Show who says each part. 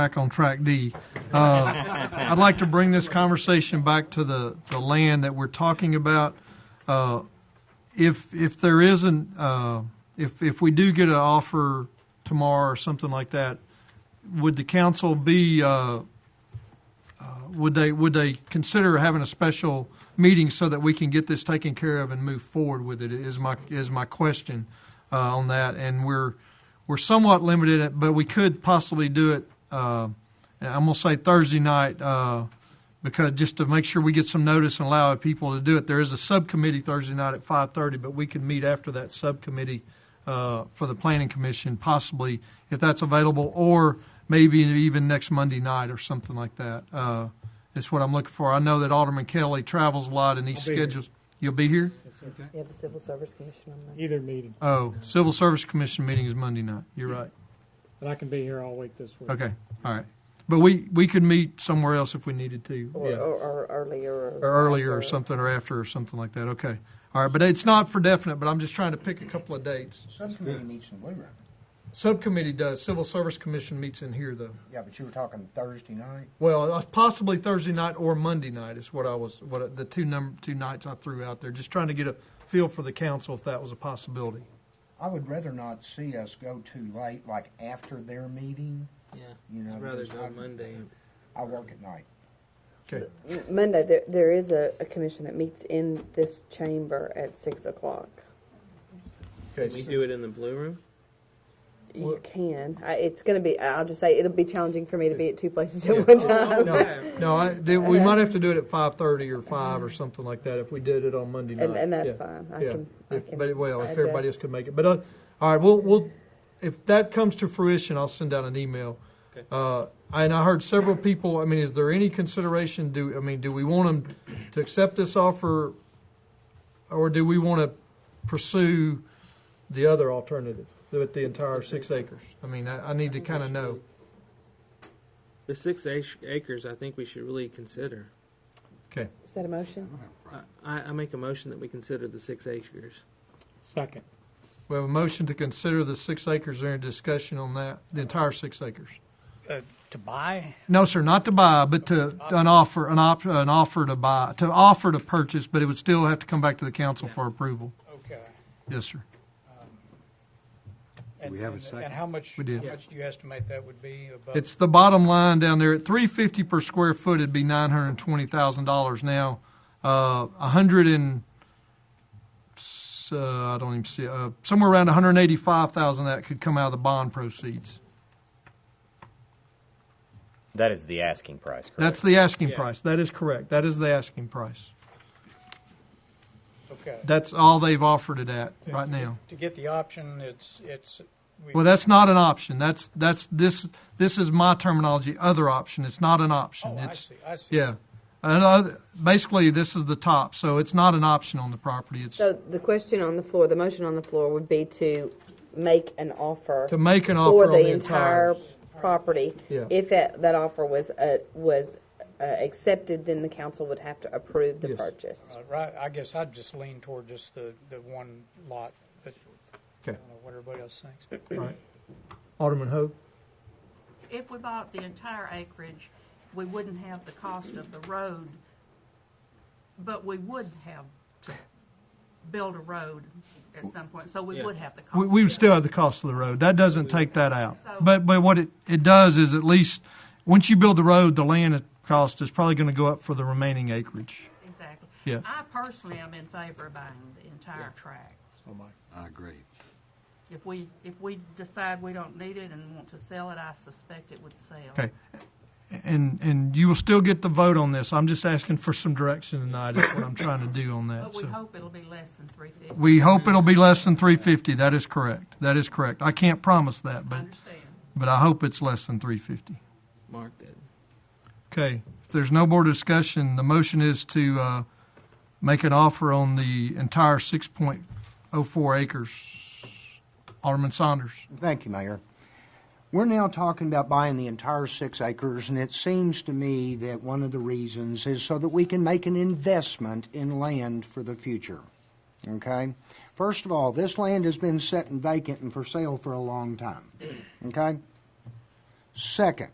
Speaker 1: back on track D. Uh, I'd like to bring this conversation back to the, the land that we're talking about. Uh, If, if there isn't, uh, if, if we do get an offer tomorrow or something like that, would the council be, uh, uh, would they, would they consider having a special meeting so that we can get this taken care of and move forward with it, is my, is my question uh, on that. And we're, we're somewhat limited, but we could possibly do it, uh, and I'm going to say Thursday night, uh, because just to make sure we get some notice and allow people to do it. There is a subcommittee Thursday night at 5:30, but we can meet after that subcommittee uh, for the planning commission, possibly, if that's available, or maybe even next Monday night or something like that. Uh, It's what I'm looking for. I know that Alderman Kelly travels a lot and he
Speaker 2: I'll be here.
Speaker 1: schedules. You'll be here?
Speaker 3: You have the Civil Service Commission on Monday.
Speaker 2: Either meeting,
Speaker 1: Oh, Civil Service Commission meeting is Monday night. You're right.
Speaker 2: but I can be here all week this week.
Speaker 1: Okay, all right. But we, we could meet somewhere else if we needed to.
Speaker 2: Oh,
Speaker 3: Or,
Speaker 1: yeah.
Speaker 3: or, or earlier. Or,
Speaker 1: Or earlier or something, or after or something like that, okay. All right, but it's not for definite, but I'm just trying to pick a couple of dates.
Speaker 4: Subcommittee meets in Blue Room.
Speaker 1: Subcommittee does, Civil Service Commission meets in here, though.
Speaker 4: Yeah, but you were talking Thursday night.
Speaker 1: Well, uh, possibly Thursday night or Monday night is what I was, what, I- the two number, two nights I threw out there, just trying to get a feel for the council if that was a possibility.
Speaker 4: I would rather not see us go too late, like after their meeting,
Speaker 5: Yeah,
Speaker 4: you know.
Speaker 5: I'd rather
Speaker 4: because
Speaker 5: go
Speaker 4: I-
Speaker 5: Monday.
Speaker 4: I work at night.
Speaker 1: Okay,
Speaker 3: M- Monday, there, there is a, a commission that meets in this chamber at 6 o'clock.
Speaker 5: Can we
Speaker 1: okay,
Speaker 5: do it in the blue room?
Speaker 3: You
Speaker 1: What-
Speaker 3: can. I, it's going to be, I'll just say, it'll be challenging for me to be at two places at one time.
Speaker 1: no, no, I, they- we might have to do it at five-thirty or five or something like that if we did it on Monday night.
Speaker 3: And, and that's
Speaker 1: Yeah.
Speaker 3: fine. I
Speaker 1: Yeah,
Speaker 3: can, I
Speaker 1: if-
Speaker 3: can.
Speaker 1: but, well, if
Speaker 3: adjust.
Speaker 1: everybody else could make it, but, uh, all right, we'll, we'll, if that comes to fruition, I'll send out an email.
Speaker 5: Okay.
Speaker 1: Uh, and I heard several people, I mean, is there any consideration, do, I mean, do we want them to accept this offer? Or do we want to pursue the other alternative with the entire six acres? I mean, I, I need to kind of know.
Speaker 5: The six ac- acres, I think we should really consider.
Speaker 3: Is that a motion?
Speaker 5: I- I, I make a motion that we consider the six acres.
Speaker 2: Second,
Speaker 1: We have a motion to consider the six acres, Is there any discussion on that, the entire six acres?
Speaker 6: uh, to buy.
Speaker 1: No, sir, not to buy, but to an offer, an op, an offer to buy, to offer to purchase, but it would still have to come back to the council for approval.
Speaker 6: Okay.
Speaker 1: Yes, sir.
Speaker 6: And-
Speaker 7: We have a
Speaker 6: and-
Speaker 7: second.
Speaker 6: And how much, how
Speaker 1: We did.
Speaker 6: much do you estimate that would be above?
Speaker 1: It's the bottom line down there at three fifty per square foot. It'd be nine hundred and twenty thousand dollars now. Uh, a hundred and s- uh, I don't even see uh, somewhere around one hundred eighty-five thousand that could come out of the bond proceeds.
Speaker 8: That is the asking price, correct?
Speaker 1: That's the asking
Speaker 5: Yeah.
Speaker 1: price. That is correct. That is the asking price.
Speaker 6: Okay.
Speaker 1: That's all they've offered it at right now.
Speaker 6: To get the option, it's, it's. we-
Speaker 1: Well, that's not an option. That's that's this this is my terminology. Other option. It's not an option.
Speaker 6: Oh, I
Speaker 1: it's
Speaker 6: see, I see.
Speaker 1: yeah. And other, basically, this is the top, so it's not an option on the property. It's
Speaker 3: So the question on the floor, the motion on the floor would be to make an offer.
Speaker 1: to make an offer
Speaker 3: for
Speaker 1: on
Speaker 3: the entire property.
Speaker 1: Yeah.
Speaker 3: If that, that offer was, uh, was uh, accepted, then the council would have to approve the
Speaker 1: Yes.
Speaker 3: purchase.
Speaker 6: Uh, Right, I guess I'd just lean toward just the, the one lot, but I
Speaker 1: Okay,
Speaker 6: don't know what everybody else thinks.
Speaker 1: all right. Alderman Hope.
Speaker 9: If we bought the entire acreage, we wouldn't have the cost of the road, but we would have to build a road at some point, so we would have the cost.
Speaker 1: We, we would still have the cost of the road. That doesn't take that out.
Speaker 9: So-
Speaker 1: But but what it, it does is at least once you build the road, the land cost is probably going to go up for the remaining acreage.
Speaker 9: Exactly.
Speaker 1: Yeah.
Speaker 9: I personally am in favor of buying the entire tract.
Speaker 7: I agree.
Speaker 9: If we, if we decide we don't need it and want to sell it, I suspect it would sell.
Speaker 1: Okay. And and you will still get the vote on this. I'm just asking for some direction tonight. Is what I'm trying to do on that.
Speaker 9: But we
Speaker 1: so.
Speaker 9: hope it'll be less than three fifty.
Speaker 1: We hope it'll be less than 350. That is correct. That is correct. I can't promise that,
Speaker 9: I
Speaker 1: but
Speaker 9: understand.
Speaker 1: but I hope it's less than 350.
Speaker 5: Mark that.
Speaker 1: Okay. If there's no more discussion, the motion is to uh, make an offer on the entire 6.04 acres. Alderman Saunders.
Speaker 4: Thank you, Mayor. We're now talking about buying the entire six acres, and it seems to me that one of the reasons is so that we can make an investment in land for the future. Okay? First of all, this land has been set and vacant and for sale for a long time. Okay? Second,